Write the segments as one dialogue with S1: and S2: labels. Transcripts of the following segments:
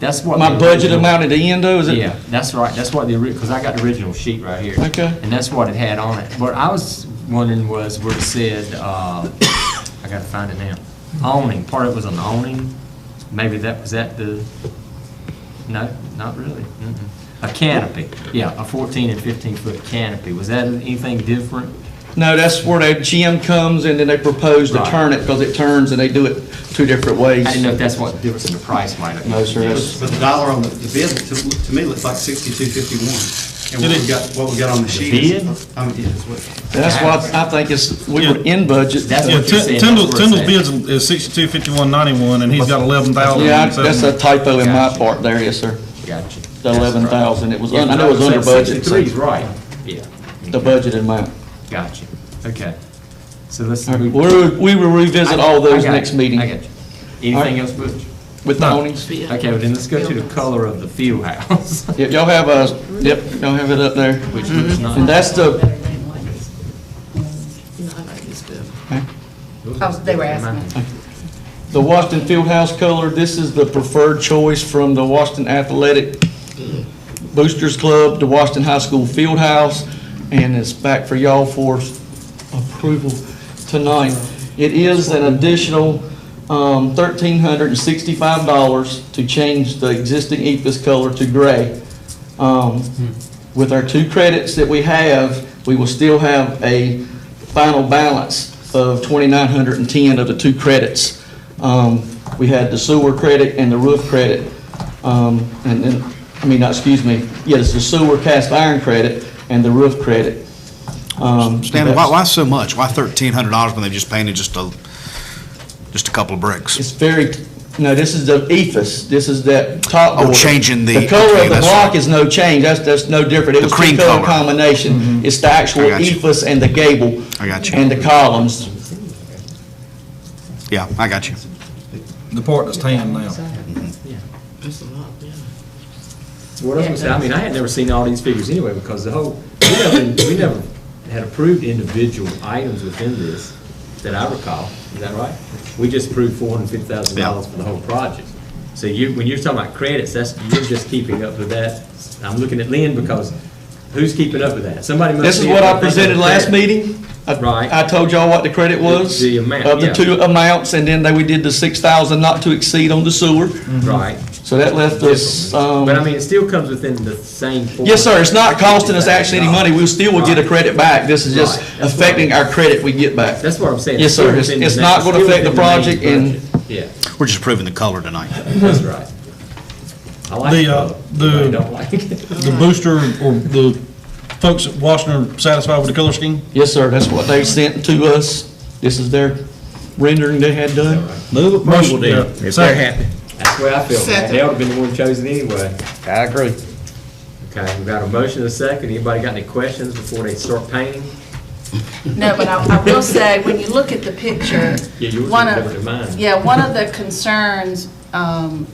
S1: That's what.
S2: My
S1: the
S2: budget
S1: original-
S2: amount at the end though, is it?
S1: Yeah, that's right, that's what the, because I got the original sheet right here.
S2: Okay.
S1: And that's what it had on it. What I was wondering was where it said, uh, I gotta find it now, awning, part of it was an awning, maybe that, was that the, no, not really. Mm-mm. A canopy, yeah, a 14 and 15 foot canopy, was that anything different?
S2: No, that's where the gym comes and then they propose to
S1: Right.
S2: turn it because it turns and they do it two different ways.
S1: I didn't know if that's what the difference in the price might have been.
S2: No, sir,
S3: But
S2: that's-
S3: but the dollar on the the bid, to to me, looks like sixty-two fifty-one. And what we got, what we got on the sheet is.
S1: bid?
S3: I mean, yeah, it's what-
S2: that's why I think it's, we were
S4: Yeah.
S2: in budget.
S1: That's
S4: Yeah,
S1: what you're
S4: Tin-
S1: saying.
S4: Tyndall,
S1: that's where
S4: Tyndall's
S1: it's
S4: bids is sixty-two, fifty-one, ninety-one, and he's got eleven thousand.
S2: Yeah, I- that's a typo in my part there, yes, sir.
S1: at. Gotcha.
S2: The eleven thousand, it was, un- I know it was
S1: Yeah,
S2: under budget. so-
S1: 63 is right, yeah.
S2: The budget amount.
S1: Gotcha, okay. So let's.
S2: All right, we're- We will revisit all those Oh, next meeting
S1: I got you.
S2: All right.
S1: Anything else, Butch?
S2: with the awnings.
S1: Okay, well then let's go to the color of the field house,
S2: Yep, y'all have a, yep, y'all have it up there.
S1: which looks
S5: Mm-hmm.
S2: And
S1: nice.
S2: that's the,
S6: Oh, they were asking. me.
S2: the Washington Fieldhouse color, this is the preferred choice from the Washington Athletic Boosters Club, the Washington High School Fieldhouse, and it's back for y'all for approval tonight. It is an additional um, $1,365 to change the existing EPIS color to gray. Um, With our two credits that we have, we will still have a final balance of 2,910 of the two credits. Um, We had the sewer credit and the roof credit, um, and then, I mean, not, excuse me, yeah, it's the sewer cast iron credit and the roof credit. Um,
S5: Stanley, why, why so much? Why thirteen hundred dollars when they've just painted just a, just a couple of bricks?
S2: It's very, no, this is the ephes, this is that top
S5: Oh,
S2: border.
S5: changing the-
S2: The color
S5: okay,
S2: of the
S5: that's
S2: block
S5: right.
S2: is no change, that's, that's no different. It
S5: The
S2: was
S5: cream
S2: two-color
S5: color. Mm-hmm.
S2: combination. It's the actual
S5: I got you.
S2: ephes and the gable.
S5: I got you.
S2: And the columns.
S5: Yeah, I got you.
S4: The part that's tan now.
S1: So What I was gonna say, I mean, I had never seen all these figures anyway, because the whole, we never, we never had approved individual items within this that I recall, is that right? We just approved four hundred and fifty thousand dollars for the whole project. So you, when you're talking about credits, that's, you're just keeping up with that. I'm looking at Lynn because who's keeping up with that? Somebody must.
S2: This is
S1: be-
S2: what I presented last meeting. I-
S1: Right.
S2: I told y'all what the credit was.
S1: the amount,
S2: Of the
S1: yeah.
S2: two amounts, and then they, we did the 6,000 not to exceed on the sewer.
S1: Right.
S2: So that left us, um,
S1: But I mean, it still comes within the same.
S2: yes, sir, it's not costing us actually any money. We still will get a
S1: Right.
S2: credit back. This is just
S1: Right, that's what I-
S2: affecting our credit we get back.
S1: That's what I'm saying.
S2: Yes, sir.
S1: still
S2: It's-
S1: within the
S2: it's
S1: ma-
S2: not gonna
S1: still
S2: affect the
S1: within main
S2: project and-
S1: budget. Yeah,
S5: We're just proving the color tonight.
S1: that's right. I like
S4: The,
S1: it,
S4: uh,
S1: though.
S4: the-
S1: I don't like it.
S4: The booster or the folks at Washington are satisfied with the color scheme?
S2: Yes, sir, that's what they sent to us. This is their rendering they had done.
S4: Move approval then, if they're happy.
S1: That's the way I feel, man. They ought to been the one chosen anyway.
S2: I agree.
S1: Okay, we got a motion and a second. Anybody got any questions before they start painting?
S6: No, but I, I will say, when you look at the picture,
S1: Yeah, yours
S6: one
S1: is better than mine.
S6: of, yeah, one of the concerns, um,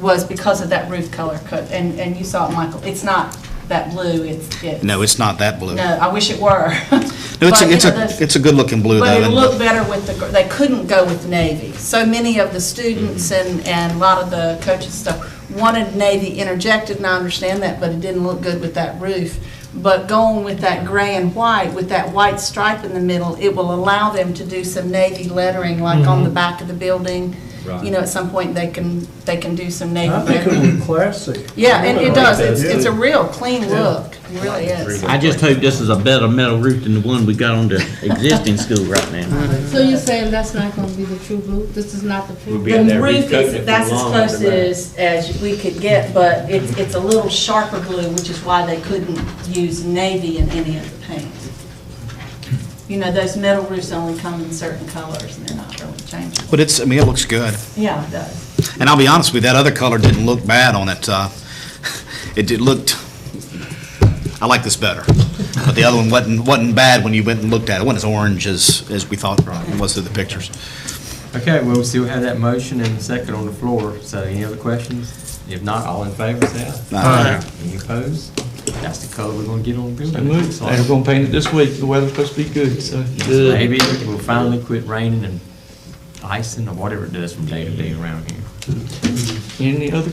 S6: was because of that roof color cut, and, and you saw it, Michael, it's not that blue, it's, it's.
S5: No, it's not that blue.
S6: No,
S5: No,
S6: I wish it were.
S5: it's
S6: But,
S5: a,
S6: you
S5: it's
S6: know,
S5: a,
S6: the-
S5: it's a good looking blue though.
S6: But it
S5: and-
S6: looked better with the, gr- they couldn't go with navy. So many of the students and, and a lot of the coaches stuff wanted navy interjected, and I understand that, but it didn't look good with that roof. But going with that gray and white, with that white stripe in the middle, it will allow them to do some navy lettering, like on the back of the building.
S1: Right.
S6: You know, at some point, they can, they can do some navy
S7: I think
S6: lettering.
S7: it was classy.
S6: Yeah, and it
S1: like
S6: does,
S1: that,
S6: it's, it's
S1: too.
S6: a real clean look, it really is.
S8: I just hope this is a better metal roof than the one we got on the existing school right now.
S9: So you're saying that's not gonna be the true blue? This is not the true?
S1: Would
S9: blue?
S1: be in
S6: The
S1: there
S6: roof
S1: recoating it
S6: is,
S1: for
S6: that's as
S1: long,
S6: close
S1: but-
S6: as, as we could get, but it's, it's a little sharper blue, which is why they couldn't use navy in any of the paints. You know, those metal roofs only come in certain colors, and they're not really changeable.
S5: But it's, I mean, it looks good.
S6: Yeah, it does.
S5: And I'll be honest with you, that other color didn't look bad on it. Uh, it did looked, I like this better. But the other one wasn't, wasn't bad when you went and looked at it. It wasn't as orange as, as we thought it was through the pictures.
S1: Okay, well, we still have that motion and the second on the floor. So any other questions? If not, all in favor, say aye.
S5: Aye.
S1: Any opposed? That's the color we're gonna get on the
S2: They
S1: building.
S2: moved, they were gonna paint it this week. The weather's supposed to be good, so.
S1: Maybe it will finally quit raining and icing or whatever it does from day to day around here.
S2: Any other